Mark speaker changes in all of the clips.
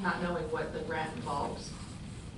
Speaker 1: not knowing what the grant involves.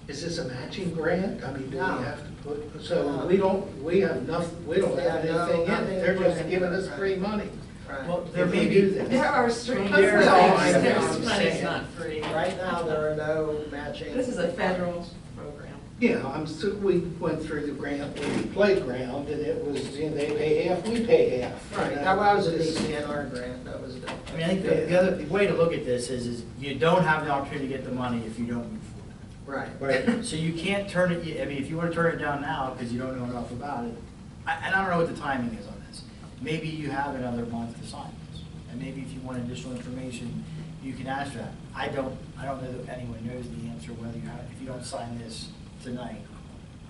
Speaker 2: Is this a matching grant? I mean, do we
Speaker 3: No.
Speaker 2: have to put, so we don't, we have nothing, we don't
Speaker 3: We
Speaker 2: have
Speaker 3: have no-
Speaker 2: anything in
Speaker 3: nothing
Speaker 2: it. They're
Speaker 3: in
Speaker 2: just
Speaker 3: it.
Speaker 2: giving us
Speaker 3: Right.
Speaker 2: free money.
Speaker 3: Right.
Speaker 4: Well, there
Speaker 2: If
Speaker 4: may
Speaker 2: we
Speaker 4: be-
Speaker 2: do this.
Speaker 1: There are strings.
Speaker 2: There
Speaker 1: There's
Speaker 3: Oh,
Speaker 2: are
Speaker 1: things-
Speaker 2: strings,
Speaker 1: There's
Speaker 2: I'm
Speaker 1: money's
Speaker 2: saying.
Speaker 1: not free.
Speaker 3: Right Oh, now, there are no matching.
Speaker 1: This is a federal program.
Speaker 2: Yeah, I'm, so we went through the grant, with the playground, and it was, you know, they pay half, we pay half.
Speaker 3: Right,
Speaker 2: You know,
Speaker 3: that was a
Speaker 2: this-
Speaker 3: DCNR grant, that was different.
Speaker 4: I mean, I think the, the other, the way to look at this is, is you don't have the opportunity to get the money if you don't move forward.
Speaker 3: Right.
Speaker 2: Right.
Speaker 4: So you can't turn it, I mean, if you want to turn it down now because you don't know enough about it, I- and I don't know what the timing is on this. Maybe you have another month to sign this, and maybe if you want additional information, you can ask for that. I don't, I don't know that anyone knows the answer whether you have, if you don't sign this tonight,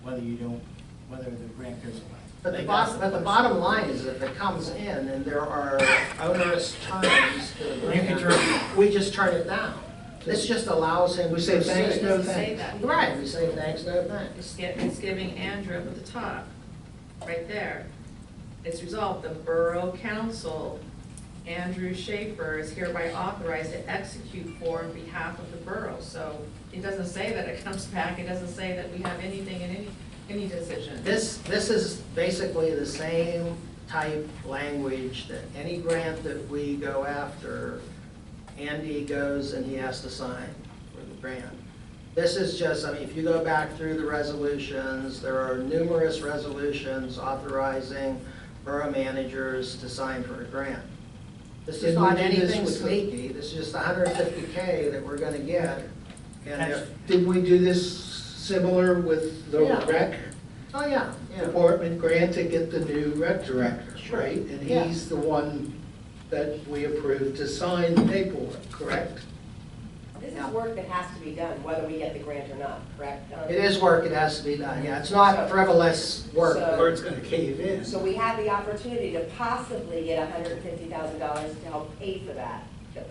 Speaker 4: whether you don't, whether the grant goes away.
Speaker 3: But the
Speaker 4: Like,
Speaker 3: bottom, but
Speaker 4: that's
Speaker 3: the bottom line is if it comes in and there are onerous terms to the
Speaker 4: You can
Speaker 3: grant,
Speaker 4: turn-
Speaker 3: we just turn it down. This just allows him.
Speaker 2: We
Speaker 3: to
Speaker 2: say
Speaker 3: proceed.
Speaker 2: thanks,
Speaker 1: It
Speaker 2: no
Speaker 1: doesn't say
Speaker 2: thanks.
Speaker 1: that.
Speaker 3: Right, we say thanks, no thanks.
Speaker 1: It's get- it's giving Andrew up at the top, right there. It's resolved, the Borough Council, Andrew Schaefer is hereby authorized to execute for and behalf of the borough. So it doesn't say that it comes back, it doesn't say that we have anything in any, any decision.
Speaker 3: This, this is basically the same type language that any grant that we go after, Andy goes and he has to sign for the grant. This is just, I mean, if you go back through the resolutions, there are numerous resolutions authorizing borough managers to sign for a grant. This is
Speaker 2: Didn't we
Speaker 3: not
Speaker 2: do this
Speaker 3: anything
Speaker 2: with the-
Speaker 3: sneaky, this is just 150K that we're going to get. And if,
Speaker 2: Did we do this similar with the
Speaker 3: Yeah.
Speaker 2: rec
Speaker 3: oh, yeah, yeah.
Speaker 2: department grant to get the new rec director,
Speaker 3: Sure.
Speaker 2: right? And
Speaker 3: Yeah.
Speaker 2: he's the one that we approved to sign the paperwork, correct?
Speaker 5: This is work that has to be done, whether we get the grant or not, correct?
Speaker 3: It is work, it has to be done, yeah, it's not frivolous work.
Speaker 5: So- Or it's
Speaker 2: gonna cave in.
Speaker 5: So we have the opportunity to possibly get hundred and fifty thousand dollars to help pay for that.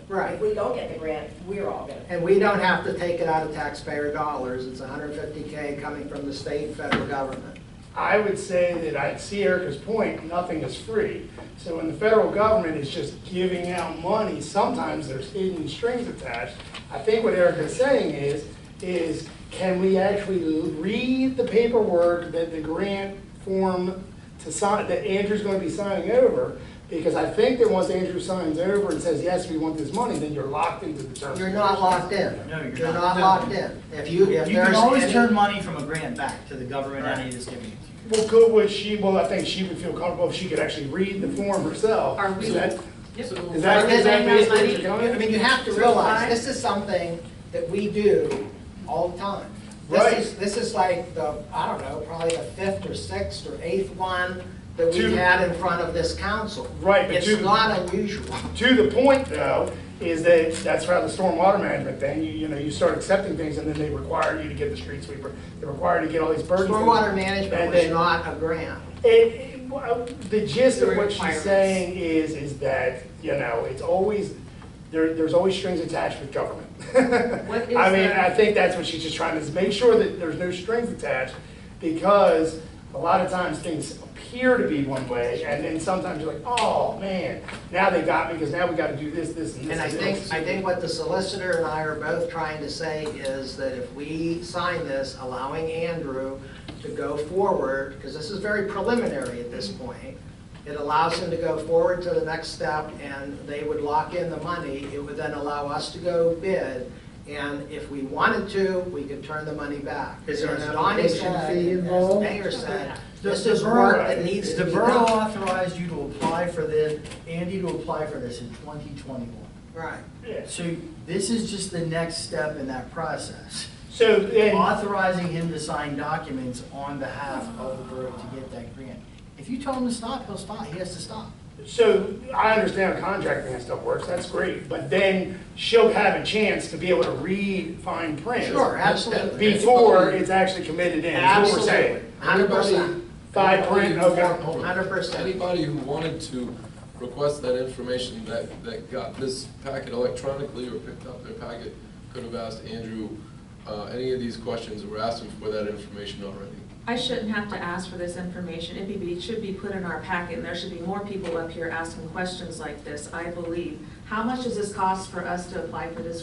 Speaker 3: Right.
Speaker 5: If we don't get the grant, we're all gonna pay.
Speaker 3: And we don't have to take it out of taxpayer dollars, it's 150K coming from the state and federal government.
Speaker 6: I would say that I see Erica's point, nothing is free. So when the federal government is just giving out money, sometimes there's hidden strings attached. I think what Erica's saying is, is can we actually read the paperwork that the grant form to sign, that Andrew's gonna be signing over? Because I think that once Andrew signs over and says, yes, we want this money, then you're locked into the terms.
Speaker 3: You're not locked in.
Speaker 4: No, you're
Speaker 3: You're
Speaker 4: not.
Speaker 3: not locked in. If you, if there's.
Speaker 4: You can always
Speaker 3: any-
Speaker 4: turn money from a grant back to the government entity that's giving it to you.
Speaker 6: Well, could, would she, well, I think she would feel comfortable if she could actually read the form herself.
Speaker 1: Are we-
Speaker 6: So that-
Speaker 1: Yep.
Speaker 6: Is that-
Speaker 3: Because
Speaker 6: is that
Speaker 3: everybody's
Speaker 6: basically
Speaker 3: money-
Speaker 6: what you're going?
Speaker 3: I mean, you have to realize, this is something that we do all the time.
Speaker 6: Right.
Speaker 3: This is, this is like the, I don't know, probably the fifth or sixth or eighth one that we've
Speaker 6: Two.
Speaker 3: had in front of this council.
Speaker 6: Right, but two-
Speaker 3: It's not unusual.
Speaker 6: To the point, though, is that that's how the stormwater management thing, you, you know, you start accepting things and then they require you to get the street sweeper. They require you to get all these burdens.
Speaker 3: Stormwater management
Speaker 6: And
Speaker 3: was
Speaker 6: then-
Speaker 3: not a grant.
Speaker 6: It, it- well, the gist of what she's
Speaker 1: Requirements.
Speaker 6: saying is, is that, you know, it's always, there, there's always strings attached with government.
Speaker 1: What is
Speaker 6: I mean,
Speaker 1: the-
Speaker 6: I think that's what she's just trying to, is make sure that there's no strings attached, because a lot of times things appear to be one way, and then sometimes you're like, oh, man, now they got me, because now we gotta do this, this, and this.
Speaker 3: And I
Speaker 6: this."
Speaker 3: think, I think what the solicitor and I are both trying to say is that if we sign this, allowing Andrew to go forward, because this is very preliminary at this point, it allows him to go forward to the next step, and they would lock in the money. It would then allow us to go bid, and if we wanted to, we could turn the money back.
Speaker 2: Is there an
Speaker 3: And as Donnie
Speaker 2: application
Speaker 3: said,
Speaker 2: fee
Speaker 3: as the
Speaker 2: involved?
Speaker 3: mayor said,
Speaker 4: The-
Speaker 3: this
Speaker 4: the
Speaker 3: is
Speaker 4: borough-
Speaker 3: work that needs to
Speaker 4: The
Speaker 3: be
Speaker 4: borough
Speaker 3: done.
Speaker 4: authorized you to apply for this, Andy to apply for this in twenty twenty-one.
Speaker 3: Right.
Speaker 6: Yeah.
Speaker 4: So this is just the next step in that process.
Speaker 6: So, and,
Speaker 4: Authorizing him to sign documents on behalf of the borough to get that grant. If you tell him to stop, he'll stop, he has to stop.
Speaker 6: so I understand how contracting and stuff works, that's great, but then she'll have a chance to be able to read fine print.
Speaker 3: Sure, absolutely.
Speaker 6: Before it's actually committed in, is what we're
Speaker 3: Absolutely,
Speaker 6: saying.
Speaker 3: hundred percent.
Speaker 6: Five print, okay.
Speaker 7: Hold on.
Speaker 3: Hundred percent.
Speaker 7: Anybody who wanted to request that information that, that got this packet electronically or picked up their packet could have asked Andrew, uh, any of these questions, or asked him for that information already.
Speaker 1: I shouldn't have to ask for this information. It be- it should be put in our packet, and there should be more people up here asking questions like this, I believe. How much does this cost for us to apply for this